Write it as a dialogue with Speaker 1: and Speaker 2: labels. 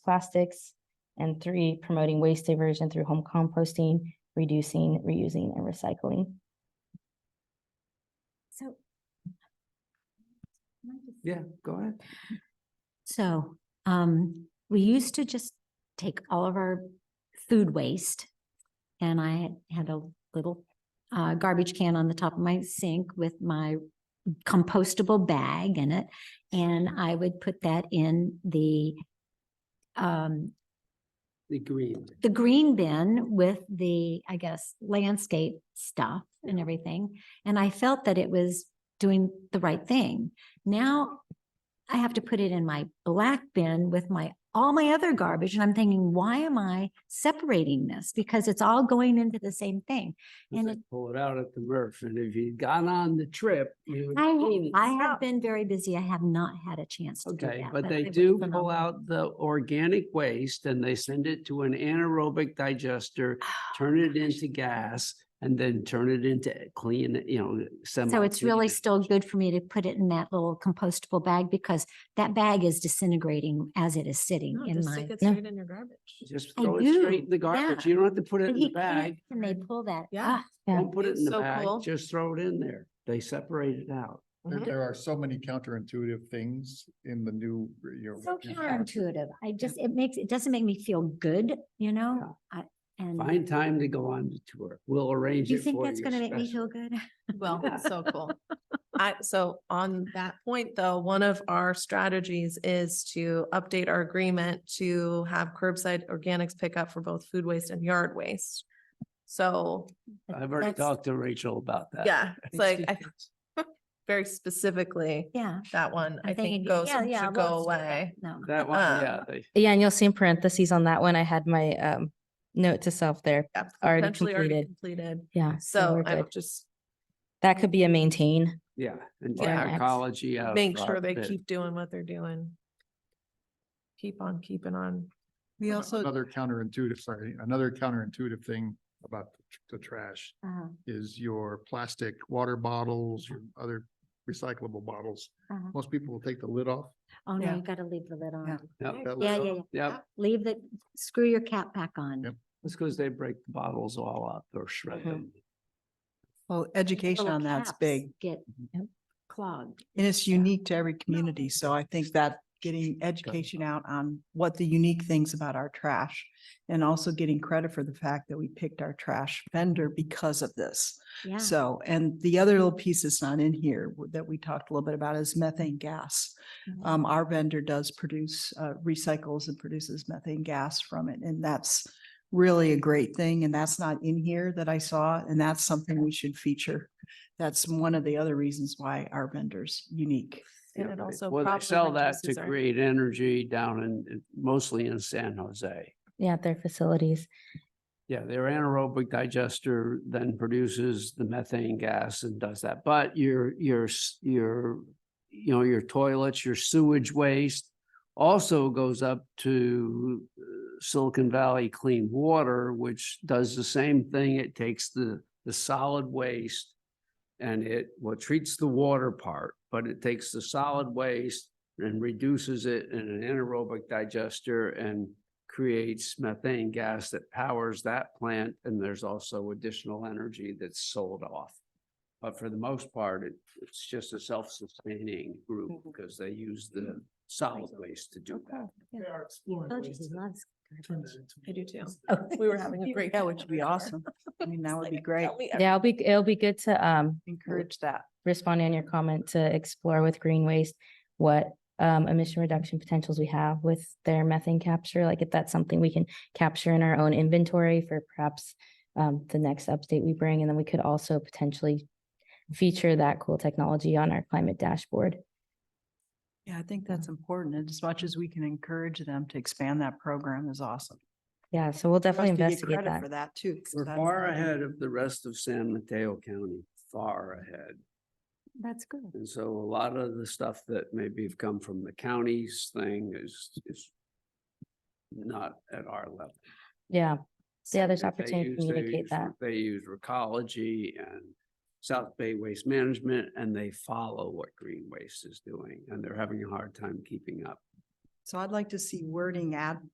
Speaker 1: plastics. And three, promoting waste diversion through home composting, reducing, reusing, and recycling.
Speaker 2: So. Can I just-
Speaker 3: Yeah, go ahead.
Speaker 2: So, um, we used to just take all of our food waste. And I had- had a little, uh, garbage can on the top of my sink with my compostable bag in it. And I would put that in the, um,
Speaker 3: The green.
Speaker 2: the green bin with the, I guess, landscape stuff and everything. And I felt that it was doing the right thing. Now I have to put it in my black bin with my, all my other garbage. And I'm thinking, why am I separating this? Because it's all going into the same thing.
Speaker 3: And
Speaker 2: And
Speaker 3: they
Speaker 2: it-
Speaker 3: pull it out at the MRF. And if you'd gone on the trip, you would.
Speaker 2: I,
Speaker 3: clean it
Speaker 2: I have
Speaker 3: up.
Speaker 2: been very busy. I have not had a chance to do
Speaker 3: Okay,
Speaker 2: that.
Speaker 3: but they
Speaker 2: it was
Speaker 3: do pull
Speaker 2: phenomenal.
Speaker 3: out the organic waste and they send it to an anaerobic digester, turn it
Speaker 2: Oh,
Speaker 3: into gas, and then turn it into clean, you know, semi.
Speaker 2: So it's really still good for me to put it in that little compostable bag because that bag is disintegrating as it is sitting
Speaker 4: No,
Speaker 2: in
Speaker 4: Oh, just
Speaker 2: my.
Speaker 4: stick it
Speaker 1: No.
Speaker 4: straight in your garbage.
Speaker 3: Just
Speaker 2: I
Speaker 3: throw it straight
Speaker 2: do,
Speaker 3: in the garbage.
Speaker 2: yeah.
Speaker 3: You don't have to put it
Speaker 2: But
Speaker 3: in
Speaker 2: he
Speaker 3: the
Speaker 2: can't,
Speaker 3: bag.
Speaker 2: And they pull that ah,
Speaker 4: Yeah.
Speaker 2: up.
Speaker 3: Don't put it
Speaker 4: It's
Speaker 3: in the
Speaker 4: so
Speaker 3: bag.
Speaker 4: cool.
Speaker 3: Just throw it in there. They separate it out.
Speaker 5: There,
Speaker 2: Mm-hmm.
Speaker 4: Mhm.
Speaker 5: there are so many counterintuitive things in the new, you know.
Speaker 2: So
Speaker 5: new policy.
Speaker 2: counterintuitive. I just, it makes, it doesn't make me feel good, you know? I- And
Speaker 3: Find time to go on the tour. We'll arrange
Speaker 2: do
Speaker 3: it
Speaker 2: Mm-hmm. you
Speaker 3: for
Speaker 2: think
Speaker 3: you.
Speaker 2: that's gonna make me
Speaker 3: special.
Speaker 2: feel good?
Speaker 4: Well, it's so cool. I, so on that point though, one of our strategies is to update our agreement to have curbside organics pickup for both food waste and yard waste. So,
Speaker 3: I've already
Speaker 4: That's-
Speaker 3: talked to Rachel about that.
Speaker 4: yeah, it's like, I,
Speaker 3: Yes.
Speaker 4: very specifically,
Speaker 2: Yeah.
Speaker 4: that one,
Speaker 2: I'm
Speaker 4: I
Speaker 2: thinking,
Speaker 4: think goes,
Speaker 2: yeah, yeah,
Speaker 4: should
Speaker 2: we'll
Speaker 4: go
Speaker 2: just do that.
Speaker 4: away.
Speaker 2: No.
Speaker 3: That one,
Speaker 4: Uh,
Speaker 3: yeah, they,
Speaker 1: Yeah, and you'll see in parentheses on that one, I had my um note to self there.
Speaker 4: Yeah,
Speaker 1: Already
Speaker 4: potentially already
Speaker 1: completed.
Speaker 4: completed.
Speaker 1: Yeah.
Speaker 4: So
Speaker 1: we're
Speaker 4: I
Speaker 1: good.
Speaker 4: would just
Speaker 1: That could be a maintain.
Speaker 3: yeah, and
Speaker 4: Yeah.
Speaker 3: take ecology out.
Speaker 4: make
Speaker 3: for
Speaker 4: sure they
Speaker 3: outfit.
Speaker 4: keep doing what they're doing. Keep on keeping on.
Speaker 6: We also,
Speaker 5: Another counterintuitive, sorry, another counterintuitive thing about the tr- the trash
Speaker 2: Uh-huh,
Speaker 5: is your plastic water bottles, your other recyclable bottles.
Speaker 2: uh-huh.
Speaker 5: Most people will take the lid off.
Speaker 2: Oh, no,
Speaker 6: Yeah.
Speaker 2: you gotta leave the lid on.
Speaker 3: Yep,
Speaker 5: that lid
Speaker 2: Yeah,
Speaker 5: off,
Speaker 2: yeah, yeah.
Speaker 3: yep.
Speaker 2: Leave the, screw your cap back on.
Speaker 5: Yep.
Speaker 3: It's because they break the bottles all up or shred
Speaker 1: Mhm.
Speaker 4: Uh-huh,
Speaker 3: them.
Speaker 6: well, education
Speaker 2: Little
Speaker 6: on that's
Speaker 2: caps
Speaker 6: big
Speaker 2: Get
Speaker 1: Yep.
Speaker 2: clogged.
Speaker 6: and it's
Speaker 2: Yeah.
Speaker 6: unique to every community. So I think that getting education out on what the unique things about our trash and also getting credit for the fact that we picked our trash vendor because of this.
Speaker 2: Yeah.
Speaker 6: So, and the other little piece that's not in here w- that we talked a little bit about is methane gas.
Speaker 4: Mm-hmm.
Speaker 2: Mhm.
Speaker 6: Um, our vendor does produce, uh, recycles and produces methane gas from it, and that's really a great thing, and that's not in here that I saw, and that's something we should feature. That's one of the other reasons why our vendor's unique.
Speaker 4: And
Speaker 3: Yeah,
Speaker 4: it
Speaker 3: they-
Speaker 4: also
Speaker 3: Well, they
Speaker 4: probably
Speaker 3: sell that to
Speaker 4: reduces our-
Speaker 3: create energy down in, mostly in San Jose.
Speaker 1: Yeah, at their facilities.
Speaker 3: Yeah, their anaerobic digester then produces the methane gas and does that, but your, your, s- your, you know, your toilets, your sewage waste also goes up to uh, Silicon Valley Clean Water, which does the same thing. It takes the, the solid waste and it, well, treats the water part, but it takes the solid waste and reduces it in an anaerobic digester and creates methane gas that powers that plant, and there's also additional energy that's sold off. But for the most part, it, it's just a self-sustaining group because they use the solid waste to do that.
Speaker 2: They
Speaker 5: are exploring
Speaker 2: Oh, Jesus loves garbage.
Speaker 4: I do too.
Speaker 2: Oh.
Speaker 4: We were having a great.
Speaker 6: That would be
Speaker 4: time.
Speaker 6: awesome. I mean, that would be great.
Speaker 4: Tell me
Speaker 1: Yeah, it'll be, it'll be good to um
Speaker 6: Encourage that.
Speaker 1: responding on your comment to explore with green waste what um, emission reduction potentials we have with their methane capture, like if that's something we can capture in our own inventory for perhaps um, the next update we bring, and then we could also potentially feature that cool technology on our climate dashboard.
Speaker 6: Yeah, I think that's important. And as much as we can encourage them to expand that program is awesome.
Speaker 1: Yeah, so we'll
Speaker 6: For us
Speaker 1: definitely
Speaker 6: to get
Speaker 1: investigate
Speaker 6: credit
Speaker 1: that.
Speaker 6: For that too. 'cause
Speaker 3: We're
Speaker 6: that's
Speaker 3: far
Speaker 6: something-
Speaker 3: ahead of the rest of San Mateo County, far ahead.
Speaker 2: That's good.
Speaker 3: And so a lot of the stuff that maybe have come from the counties thing is, is not at our level.
Speaker 1: Yeah, yeah, there's
Speaker 3: They
Speaker 1: opportunity to
Speaker 3: use- they
Speaker 1: communicate
Speaker 3: use-
Speaker 1: that.
Speaker 3: They use Recology and South Bay Waste Management, and they follow what Green Waste is doing, and they're having a hard time keeping up.
Speaker 6: So I'd like to see wording add